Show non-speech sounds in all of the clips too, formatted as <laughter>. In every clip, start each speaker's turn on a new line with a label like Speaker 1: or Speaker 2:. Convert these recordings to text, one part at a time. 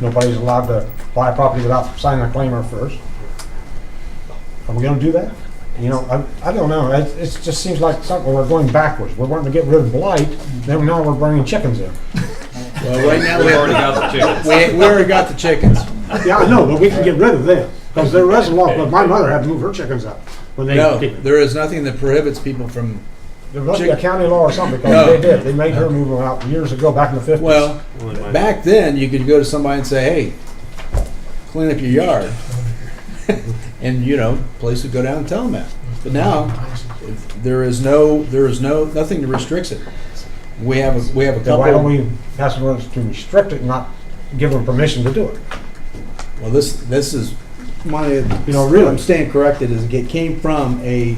Speaker 1: Nobody's allowed to buy a property without signing a claimer first. Are we gonna do that? You know, I, I don't know, it, it just seems like something, we're going backwards, we're wanting to get rid of blight, then now we're bringing chickens in.
Speaker 2: Well, right now,
Speaker 3: We've
Speaker 2: we,
Speaker 3: already got the chickens.
Speaker 2: <laughs> we, we already got the chickens.
Speaker 1: Yeah, I know, but we can get rid of them, because there was a law, but my mother had to move her chickens out when they.
Speaker 2: No, there is nothing that prohibits people from,
Speaker 1: There must be a
Speaker 2: chick-
Speaker 1: county law or something,
Speaker 2: No.
Speaker 1: because they did, they made her move them out years ago, back in the fifties.
Speaker 2: well, back then, you could go to somebody and say, hey, clean up your yard. <laughs> And, you know, police would go down and tell them that. But now, if there is no, there is no, nothing that restricts it. We have, a we have a
Speaker 1: Then why don't
Speaker 2: couple,
Speaker 1: we pass an ordinance to restrict it, and not give them permission to do it?
Speaker 2: well, this, this is, my, you
Speaker 1: know,
Speaker 2: know,
Speaker 1: really-
Speaker 2: really, I'm staying corrected, is it came from a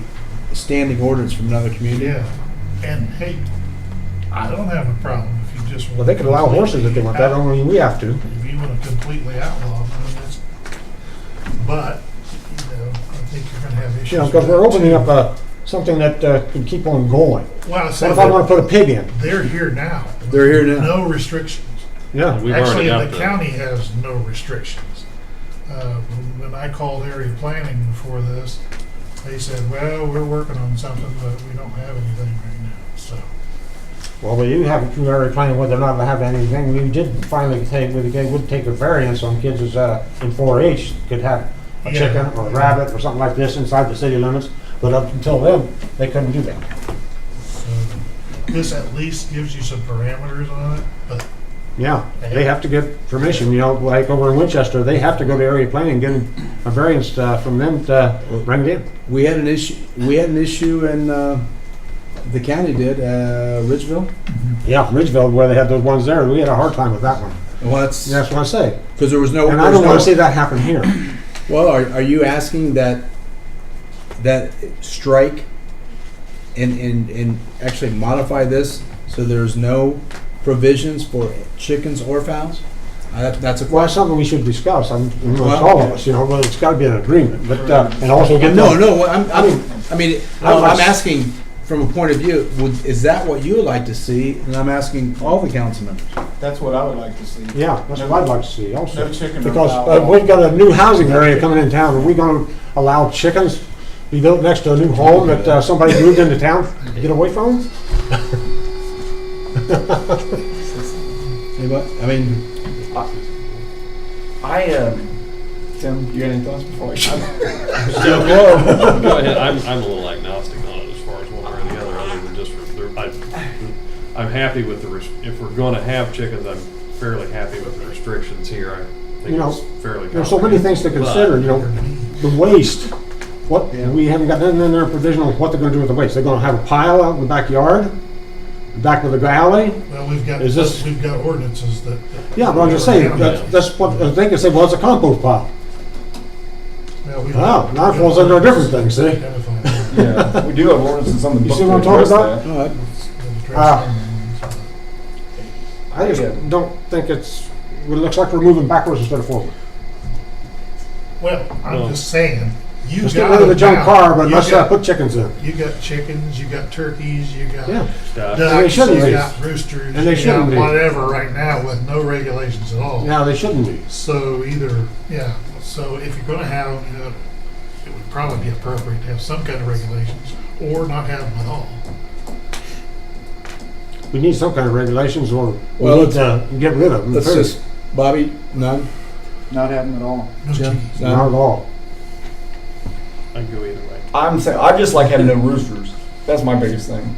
Speaker 2: standing ordinance from another community.
Speaker 4: Yeah, and hey, I don't have a problem if you just.
Speaker 1: Well, they could allow horses if they want, that don't mean we have to.
Speaker 4: If you want to completely outlaw, them, then it's, but, you know, I think you're gonna have issues.
Speaker 1: You know, because
Speaker 4: with
Speaker 1: we're
Speaker 4: that,
Speaker 1: opening
Speaker 4: too.
Speaker 1: up uh something that uh, could keep on going.
Speaker 4: Well, I
Speaker 1: What
Speaker 4: said,
Speaker 1: if I want to put a pig in?
Speaker 4: they're here now.
Speaker 2: They're here now.
Speaker 4: No restrictions.
Speaker 1: Yeah.
Speaker 3: We've already
Speaker 4: Actually,
Speaker 3: got
Speaker 4: the
Speaker 3: the,
Speaker 4: county has no restrictions. Uh, When I called area planning before this, they said, well, we're working on something, but we don't have anything right now, so.
Speaker 1: Well, but you have a preliminary plan whether or not to have anything. You did finally take, with the game, would take a variance on kids as, uh, in 4-H, could have a
Speaker 4: Yeah.
Speaker 1: chicken or a rabbit or something like this inside the city limits, but up until then, they couldn't do that.
Speaker 4: So Um, This at least gives you some parameters on it, but
Speaker 1: Yeah, they have to get permission, you know, like over in Winchester, they have to go to area planning, get a variance uh, from them to bring it in.
Speaker 2: We had an issue, we had an issue in, uh, the county did, uh, Ridgeville.
Speaker 1: Yeah, Ridgeville, where they had those ones there, we had a hard time with that one.
Speaker 2: Well, that's,
Speaker 1: That's what I say.
Speaker 2: because there was no.
Speaker 1: And
Speaker 2: there
Speaker 1: I
Speaker 2: was
Speaker 1: don't want
Speaker 2: no-
Speaker 1: to see that happen here.
Speaker 2: Well, are, are you asking that, that strike and, and, and actually modify this so there's no provisions for chickens or fowls? Uh, that- that's a
Speaker 1: Well,
Speaker 2: question.
Speaker 1: it's something we should discuss, I'm, it's
Speaker 2: Well-
Speaker 1: all of us, you know, but it's gotta be an agreement, but, uh, and also get.
Speaker 2: No, no, what I'm,
Speaker 1: I mean-
Speaker 2: I'm, I mean, well,
Speaker 1: was-
Speaker 2: I'm asking from a point of view, would, is that what you would like to see? And I'm asking all the council members.
Speaker 5: That's what I would like to see.
Speaker 1: Yeah, that's what I'd like to see also.
Speaker 5: No chicken or
Speaker 1: Because
Speaker 5: fowl.
Speaker 1: uh, we've got a new housing area coming in town, are we gonna allow chickens be built next to a new home that uh, somebody moved into town, to get away from?
Speaker 2: Anybody, I mean,
Speaker 5: I, um, Tim, you got any thoughts before I shut?
Speaker 2: <laughs>
Speaker 3: go ahead, I'm, I'm a little agnostic on it as far as one way or the other, other than just, for- there- I, I'm happy with the, res- if we're gonna have chickens, I'm fairly happy with the restrictions here. I
Speaker 1: You
Speaker 3: think
Speaker 1: know,
Speaker 3: it's
Speaker 1: <laughs>
Speaker 3: fairly.
Speaker 1: There's so many things to consider, you know, the waste, what, we haven't got nothing in their provision on what they're gonna do with the waste, they're gonna have a pile out in the backyard, back with the alley,
Speaker 4: well, we've got,
Speaker 1: Is this-
Speaker 4: we've got ordinances that. that-
Speaker 1: Yeah, but I'm just saying, that's, that's what, uh, they can say, well, it's a compost pile.
Speaker 4: Well, we-
Speaker 1: Oh, now it falls under a different thing, see?
Speaker 4: Identify.
Speaker 5: Yeah, we do have ordinances on the
Speaker 1: You
Speaker 5: book
Speaker 1: see what
Speaker 5: to
Speaker 1: I'm talking
Speaker 5: address
Speaker 1: about?
Speaker 2: all
Speaker 5: that.
Speaker 2: right.
Speaker 1: Ah. I
Speaker 5: Yeah.
Speaker 1: just don't think it's, it looks like we're moving backwards instead of forward.
Speaker 4: Well,
Speaker 3: Well.
Speaker 4: I'm just saying, you
Speaker 1: Let's
Speaker 4: got
Speaker 1: get rid of the
Speaker 4: it
Speaker 1: junk
Speaker 4: now.
Speaker 1: car, but
Speaker 4: You
Speaker 1: let's uh,
Speaker 4: got-
Speaker 1: put chickens in.
Speaker 4: You got chickens, you got turkeys, you got
Speaker 1: Yeah,
Speaker 3: Yeah,
Speaker 1: they
Speaker 4: ducks,
Speaker 1: shouldn't
Speaker 4: you
Speaker 1: be.
Speaker 4: got roosters,
Speaker 1: And they
Speaker 4: you
Speaker 1: shouldn't
Speaker 4: got
Speaker 1: be.
Speaker 4: whatever right now with no regulations at all.
Speaker 1: now they shouldn't be.
Speaker 4: So either, yeah, so if you're gonna have, you know, it would probably be appropriate to have some kind of regulations or not have them at all.
Speaker 1: We need some kind of regulations or we
Speaker 2: Well,
Speaker 1: need to get rid of them.
Speaker 2: Let's
Speaker 1: period.
Speaker 2: just, Bobby, none?
Speaker 5: Not happening at all.
Speaker 2: Yeah.
Speaker 4: No chickens.
Speaker 2: No.
Speaker 1: Not at all.
Speaker 3: uh, I can go either way.
Speaker 5: I'm saying, I just like having no roosters. That's my biggest thing.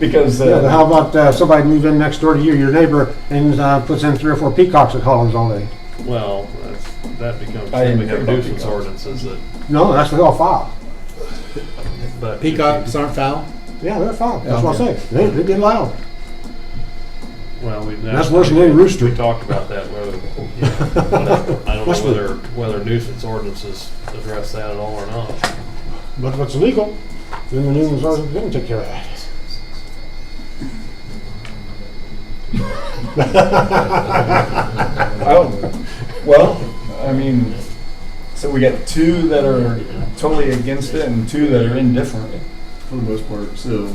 Speaker 5: Because,
Speaker 1: Yeah, but
Speaker 5: uh,
Speaker 1: how about uh, somebody moved in next door to you, your neighbor, and uh, puts in three or four peacocks that hollers all day?
Speaker 3: Well, that's, that becomes,
Speaker 5: I
Speaker 3: then we
Speaker 5: didn't think
Speaker 3: have
Speaker 5: about
Speaker 3: nuisance
Speaker 5: peacocks.
Speaker 3: ordinances that,
Speaker 1: No, that's all foul.
Speaker 3: but. if you- <laughs>
Speaker 2: Peacocks aren't foul?
Speaker 1: Yeah, they're foul.
Speaker 2: Yeah,
Speaker 1: That's what I
Speaker 2: okay.
Speaker 1: say. They, they get loud.
Speaker 3: Well, we.
Speaker 1: That's worse than any rooster.
Speaker 3: We talked about that, whether,
Speaker 1: <laughs>
Speaker 3: yeah, I don't
Speaker 1: What's
Speaker 3: know
Speaker 1: the-
Speaker 3: whether, whether nuisance ordinances address that at all or not.
Speaker 1: But if it's illegal, then the nuisance ordinance didn't take care of that. <laughs>
Speaker 5: oh, well, I mean, so we got two that are totally against it and two that are indifferent for the most part, so.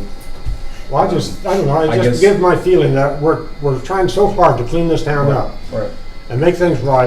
Speaker 1: Well, I just, I don't know, I
Speaker 5: I
Speaker 1: just
Speaker 5: guess-
Speaker 1: give my feeling that we're, we're trying so hard to clean this town up
Speaker 5: Right.
Speaker 1: and make things right,